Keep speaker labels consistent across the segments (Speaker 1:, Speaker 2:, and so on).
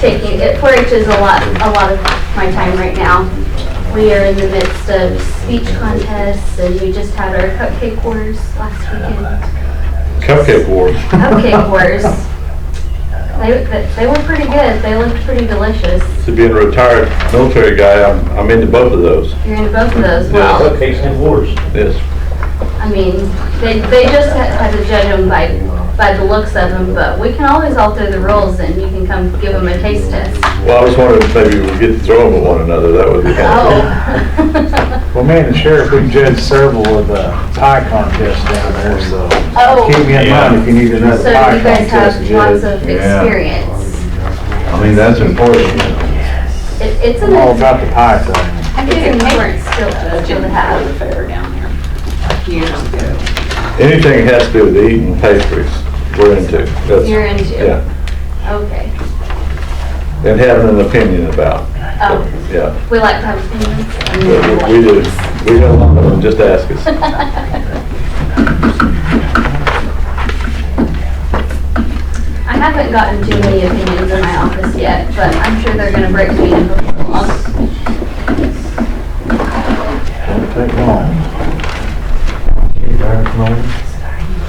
Speaker 1: taking, it- 4-H is a lot, a lot of my time right now. We are in the midst of speech contests, and we just had our cupcake wars last weekend.
Speaker 2: Cupcake Wars.
Speaker 1: Cupcake wars. They, they- they were pretty good, they looked pretty delicious.
Speaker 2: To being a retired military guy, I'm, I'm into both of those.
Speaker 1: You're into both of those, well.
Speaker 3: Cupcakes and wars.
Speaker 2: Yes.
Speaker 1: I mean, they, they just ha- had to judge them by, by the looks of them, but we can always alter the rules and you can come give them a taste test.
Speaker 2: Well, I was wondering if maybe we get to throw them at one another, that would be kind
Speaker 1: Oh.
Speaker 4: Well, me and the sheriff, we judged several of the pie contests down there, so
Speaker 1: Oh.
Speaker 4: keep me in mind if you need another
Speaker 1: So you
Speaker 4: pie
Speaker 1: guys
Speaker 4: contest
Speaker 1: have lots
Speaker 4: judge.
Speaker 1: of
Speaker 2: Yeah.
Speaker 1: experience.
Speaker 2: I mean, that's important.
Speaker 1: It, it's
Speaker 4: I'm
Speaker 1: an,
Speaker 4: all about the pie thing.
Speaker 1: it's an excellent skill to skill to
Speaker 5: have
Speaker 1: have.
Speaker 5: a fair down there. Years ago.
Speaker 2: Anything that has to do with eating pastries, we're into. That's-
Speaker 1: You're into.
Speaker 2: Yeah,
Speaker 1: Okay.
Speaker 2: and having an opinion about,
Speaker 1: Oh,
Speaker 2: yeah.
Speaker 1: we like to have opinions.
Speaker 2: We
Speaker 1: and
Speaker 2: we do, we have a lot of them, just ask us.
Speaker 1: I haven't gotten too many opinions in my office yet, but I'm sure they're gonna break me in before long.
Speaker 4: Don't take long.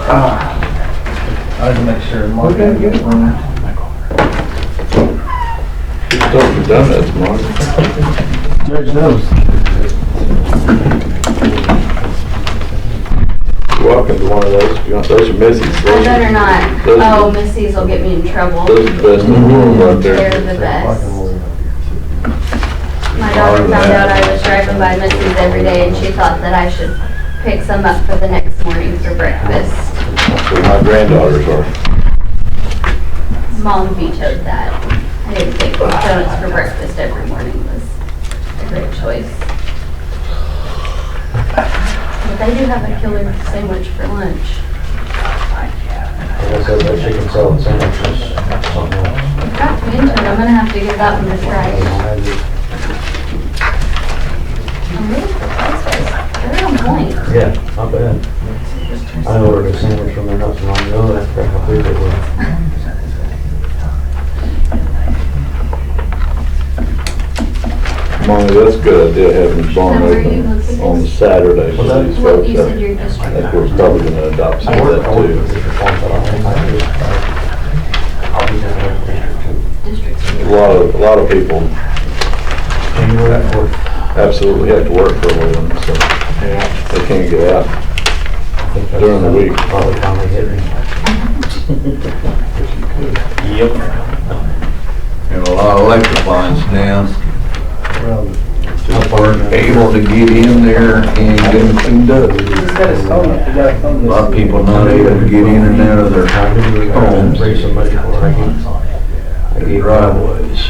Speaker 3: I had to make sure.
Speaker 4: We're gonna get one.
Speaker 2: We've done that tomorrow.
Speaker 4: Judge those.
Speaker 2: You're welcome to one of those, you want, those are Missy's.
Speaker 1: I better not.
Speaker 2: Those are-
Speaker 1: Oh, Missy's will get me in trouble.
Speaker 2: Those are the best in the world right there.
Speaker 1: They're the best. My daughter found out I was driving by Missy's every day and she thought that I should pick some up for the next morning for breakfast.
Speaker 2: That's where my granddaughters are.
Speaker 1: Mom vetoed that. I didn't think donuts for breakfast every morning was a great choice. But they do have a killer sandwich for lunch.
Speaker 3: That's how they chicken salad sandwiches. something else.
Speaker 1: Got me into it. I'm gonna have to give that one a try.
Speaker 3: I did-
Speaker 1: I'm really surprised by this. They're on point.
Speaker 3: Yeah, not bad. I ordered a sandwich from there not too long ago, and I forgot how big it was.
Speaker 2: Molly, that's a good idea, having the barn
Speaker 1: Now, where are you
Speaker 2: open
Speaker 1: looking?
Speaker 2: on Saturday for
Speaker 3: Well,
Speaker 2: these
Speaker 1: Well,
Speaker 2: folks.
Speaker 1: you said your
Speaker 2: that- I
Speaker 1: district.
Speaker 2: think we're probably gonna adopt some
Speaker 3: I
Speaker 2: of
Speaker 3: ordered, I
Speaker 2: that
Speaker 3: ordered
Speaker 2: too.
Speaker 3: it for one, but I don't think I did. I'll be down there later too.
Speaker 1: Districts.
Speaker 2: A lot of, a lot of people
Speaker 3: January that fourth,
Speaker 2: absolutely have to work for a living, so they can't get out.
Speaker 3: I think that's
Speaker 2: During the week.
Speaker 3: Probably finally hit me.
Speaker 6: and a lot of electric lines down. Able to get in there and get them cleaned up. A lot of people not able to get in and out of their
Speaker 3: I knew we were gonna
Speaker 6: homes,
Speaker 3: raise some money for it. I gave- I
Speaker 6: their
Speaker 3: gave
Speaker 6: driveways.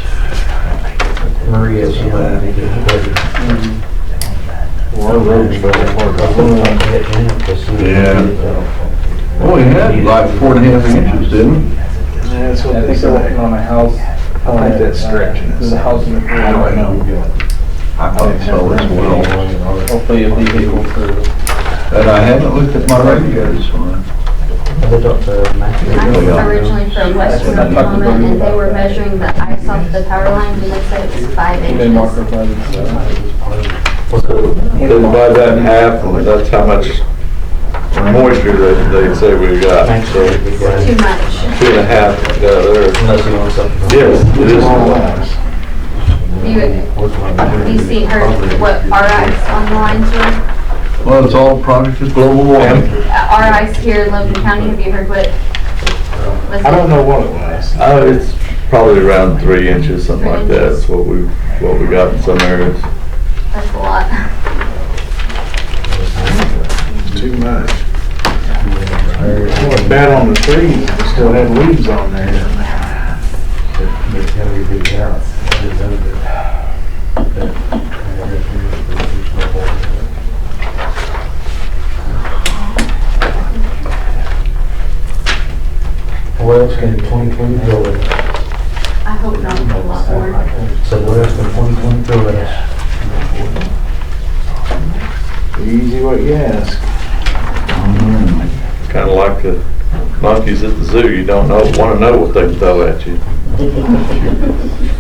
Speaker 3: Maria some money to do the budget.
Speaker 4: Our roads better work.
Speaker 6: Oh, we had like four and a half inches, didn't we?
Speaker 4: That's what they say. On a house. I think that's stretching. It's a house in the. I don't know.
Speaker 6: I thought so as well.
Speaker 4: Hopefully it'll be equal to.
Speaker 6: But I haven't looked at my radios on it.
Speaker 1: I'm originally from West
Speaker 4: That's what I talked
Speaker 1: Oklahoma,
Speaker 4: about.
Speaker 1: and they were measuring the ice off the power lines, and they said it was five inches.
Speaker 4: uh,
Speaker 2: They divide that in half, and that's how much moisture they, they say we got. So
Speaker 1: Too much.
Speaker 2: two and a half got there.
Speaker 3: Unless you want something.
Speaker 2: Yes, it is.
Speaker 1: You, you see her, what our ice on the lines were?
Speaker 6: Well, it's all product of global warming.
Speaker 1: Uh, Our ice here in Logan County, have you heard what? was
Speaker 4: I don't
Speaker 1: it?
Speaker 4: know what it was.
Speaker 2: Uh, it's probably around three inches, something like that. That's what we, what we got in some areas.
Speaker 1: That's a lot.
Speaker 4: Too much. Well, it's bad on the trees, we still had leaves on there.
Speaker 3: What else can twenty twenty throw at us?
Speaker 1: I hope not a lot more.
Speaker 3: So what else can twenty twenty throw at us?
Speaker 4: Easy what you ask.
Speaker 6: Mm-hmm.
Speaker 2: Kind of like the monkeys at the zoo, you don't know, want to know what they throw at you.
Speaker 1: Thank you.